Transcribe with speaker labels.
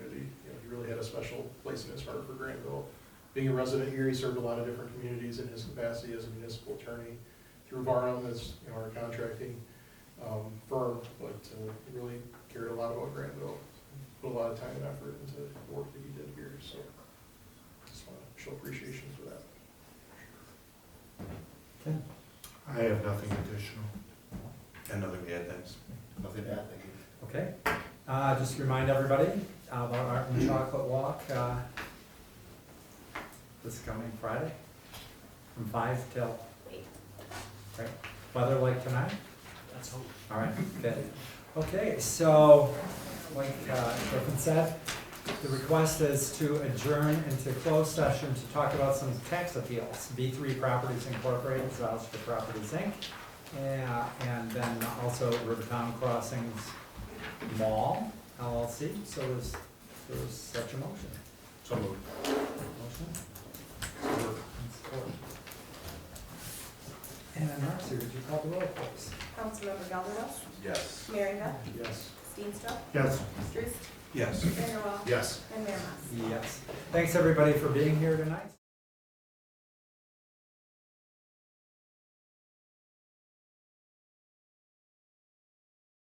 Speaker 1: a special place in his heart for Granville. Being a resident here, he served a lot of different communities in his capacity as a municipal attorney through Barham as, you know, our contracting um, firm, but uh, he really cared a lot about Granville. Put a lot of time and effort into the work that he did here, so just want to show appreciation for that.
Speaker 2: I have nothing additional.
Speaker 3: And nothing to add, thanks.
Speaker 2: Nothing to add, thank you.
Speaker 4: Okay, uh, just remind everybody uh, about our own chocolate walk, uh, this coming Friday, from five till eight. Right, weather like tonight? That's hope. All right, good. Okay, so, like uh, Griffin said, the request is to adjourn into closed session to talk about some tax appeals. B three Properties Incorporated, Zalstra Properties Inc., and- and then also Rivertown Crossings Mall LLC, so there's, there's such a motion.
Speaker 2: So moved.
Speaker 4: Motion? and support. And Marcy, would you call the roll, please?
Speaker 5: Councilmember Gelderlos,
Speaker 3: Yes.
Speaker 5: Merringa,
Speaker 1: Yes.
Speaker 5: Steenstra,
Speaker 2: Yes.
Speaker 5: Truist,
Speaker 3: Yes.
Speaker 5: Vanderwaal,
Speaker 2: Yes.
Speaker 5: and Mayor Mas.
Speaker 4: Yes. Thanks, everybody, for being here tonight.